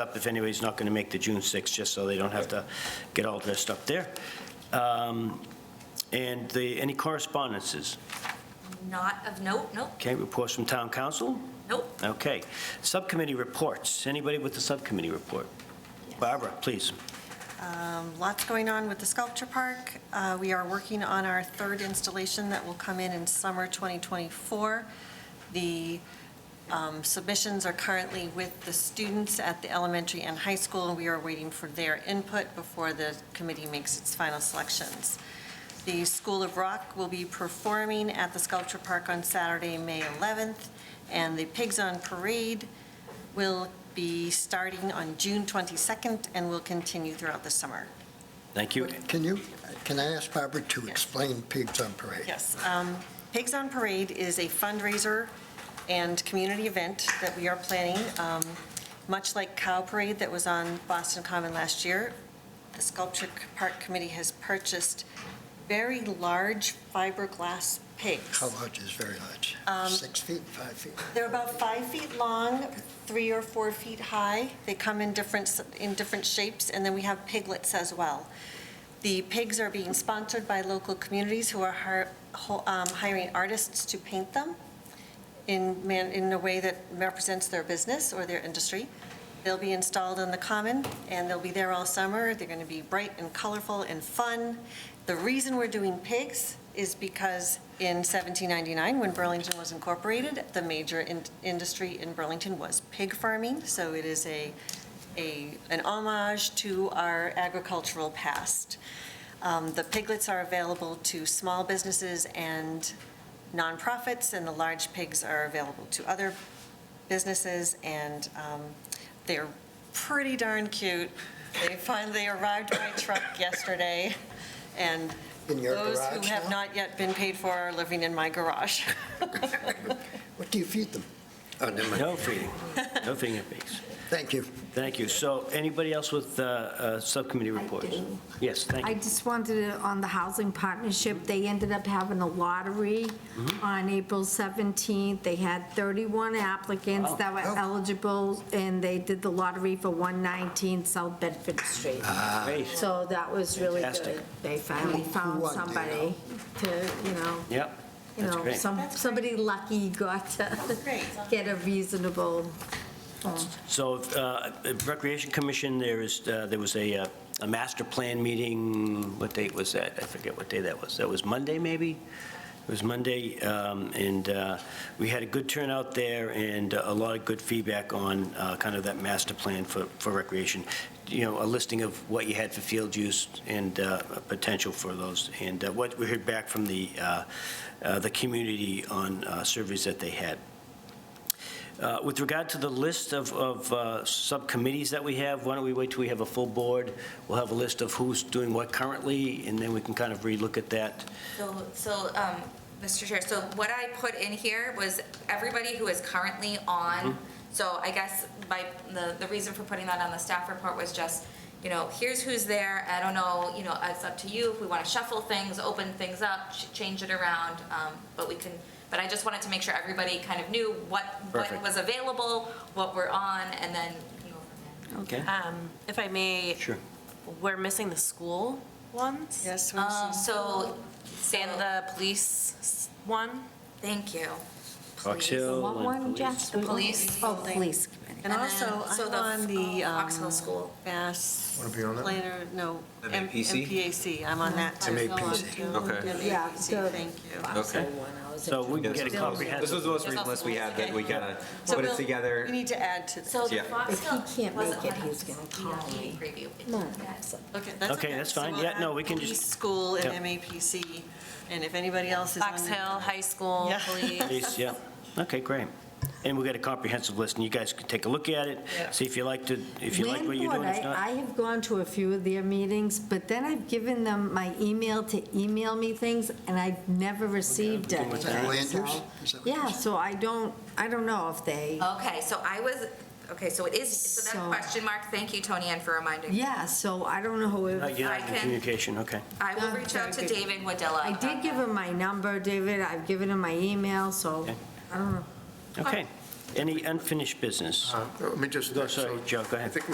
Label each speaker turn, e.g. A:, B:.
A: up if anybody's not going to make the June 6th, just so they don't have to get all dressed up there. Um, And the, any correspondences?
B: Not of note, nope,
A: Okay, reports from town council?
B: nope.
A: Okay. Subcommittee reports. Anybody with the subcommittee report? Barbara, please.
C: Um, Lots going on with the sculpture park. Uh, We are working on our third installation that will come in in summer 2024. The um, submissions are currently with the students at the elementary and high school, and we are waiting for their input before the committee makes its final selections. The School of Rock will be performing at the sculpture park on Saturday, May 11th, and the Pigs on Parade will be starting on June 22nd and will continue throughout the summer.
A: Thank you.
D: Can you, can I ask Barbara to
C: Yes.
D: explain Pigs on Parade?
C: Yes. um, Pigs on Parade is a fundraiser and community event that we are planning. Um, Much like Cow Parade that was on Boston Common last year, the Sculpture Park Committee has purchased very large fiberglass pigs.
D: How large is very large?
C: Um,
D: Six feet, five feet?
C: They're about five feet long, three or four feet high. They come in different, in different shapes, and then we have piglets as well. The pigs are being sponsored by local communities who are hir- ho- um, hiring artists to paint them in, man- in a way that represents their business or their industry. They'll be installed on the common, and they'll be there all summer. They're going to be bright and colorful and fun. The reason we're doing pigs is because in 1799, when Burlington was incorporated, the major in- industry in Burlington was pig farming, so it is a, a, an homage to our agricultural past. Um, The piglets are available to small businesses and nonprofits, and the large pigs are available to other businesses, and um, they're pretty darn cute. They finally arrived by truck yesterday, and
D: In your garage
C: those who have
D: now?
C: not yet been paid for are living in my garage.
D: What do you feed them? Oh, never mind.
A: No feeding, no feeding of pigs.
D: Thank you.
A: Thank you. So anybody else with uh, uh, subcommittee reports?
E: do.
A: Yes, thank
E: I
A: you.
E: just wanted to, on the Housing Partnership, they ended up having a lottery
A: Mm-hmm.
E: on April 17th. They had 31 applicants
A: Wow.
E: that
D: Oh.
E: were eligible, and they did the lottery for 119 South Bedford Street.
D: Ah.
A: Great.
E: So that was really
A: Fantastic.
E: good. They finally found
D: won, do you
E: somebody to, you know,
A: Yep,
E: you
A: that's
E: know,
A: great.
E: some,
C: That's great.
E: somebody lucky got to
C: great.
E: get a reasonable,
A: So uh, Recreation Commission, there is, uh, there was a, uh, a master plan meeting, what date was that? I forget what day that was. That was Monday, maybe? It was Monday, um, and uh, we had a good turnout there and a lot of good feedback on uh, kind of that master plan for, for recreation. You know, a listing of what you had for field use and uh, potential for those. And uh, what we heard back from the, uh, uh, the community on uh, surveys that they had. Uh, With regard to the list of, of uh, subcommittees that we have, why don't we wait till we have a full board? We'll have a list of who's doing what currently, and then we can kind of relook at that.
B: So, so, um, Mr. Chair, so what I put in here was everybody who is currently on. So I guess my, the, the reason for putting that on the staff report was just, you know, here's who's there. I don't know, you know, it's up to you if we want to shuffle things, open things up, ch- change it around. Um, but we can, but I just wanted to make sure everybody kind of knew what, what
A: Perfect.
B: was available, what we're on, and then we can go from there.
A: Okay.
F: Um, If I may,
A: Sure.
F: we're missing the school ones?
C: Yes, we're
B: Um,
C: seeing-
B: so,
F: And the police s- one?
B: thank you.
A: Fox
B: Please.
A: Hill
E: what
A: and
E: one,
A: police.
E: Jeff?
B: The police.
E: Oh, police committee.
C: And
B: And
C: also,
B: then- so
C: I'm
B: the,
C: on the.
B: um,
C: um,
B: Oxhill School.
C: Mass.
D: Wanna be on that?
C: Planner, no. M-
G: MAPC?
C: MPAC, I'm on that too.
D: MAPC.
G: Okay.
E: Yeah,
C: MAPC,
E: the-
C: thank you.
G: Okay.
A: So we can get a
G: Yes. This was
A: comprehensive,
G: the most recent list we had that we kind of put
C: we'll-
G: it together.
C: We need to add to this.
B: So the
G: Yeah.
B: Fox
E: If he
B: Hill
E: can't
B: wasn't
E: make it,
B: on
E: he's
B: the
E: gonna call
B: DRB
E: me.
B: Preview.
E: No,
B: Yes.
C: Okay, that's
A: Okay,
C: okay.
A: that's
C: So
A: fine.
C: we'll
A: Yeah, no,
C: add
A: we can just-
C: police, School and
A: Yep.
C: MAPC, and if anybody else is on.
F: Fox
C: it-
F: Hill High School,
C: Yeah.
F: police.
A: Police, yeah. Okay, great. And we'll get a comprehensive list, and you guys can take a look at it,
C: Yeah.
A: see if you like to, if you like what you're doing,
E: Landlord,
A: if
E: I I
A: not.
E: have gone to a few of their meetings, but then I've given them my email to email me things, and I've never received
A: can
E: anything.
A: look
D: Is that land use?
E: so-
D: Is that what you
E: Yeah,
D: said?
E: so I don't, I don't know if they,
B: Okay, so I was, okay, so it is, so that
E: So-
B: question mark, thank you, Tony Ann, for reminding. me.
E: yeah, so I don't know
A: Not
E: if,
A: yet,
B: I
A: in
B: can-
A: communication, okay.
B: I will
E: Yeah,
B: reach out to
E: very good.
B: David Wadilla.
E: I did give him my number, David, I've given him my email, so
A: Okay.
E: I don't know.
A: Okay. Any unfinished business?
H: Uh, Let me just.
A: No, sorry,
H: so
A: Joe, go ahead.
H: I think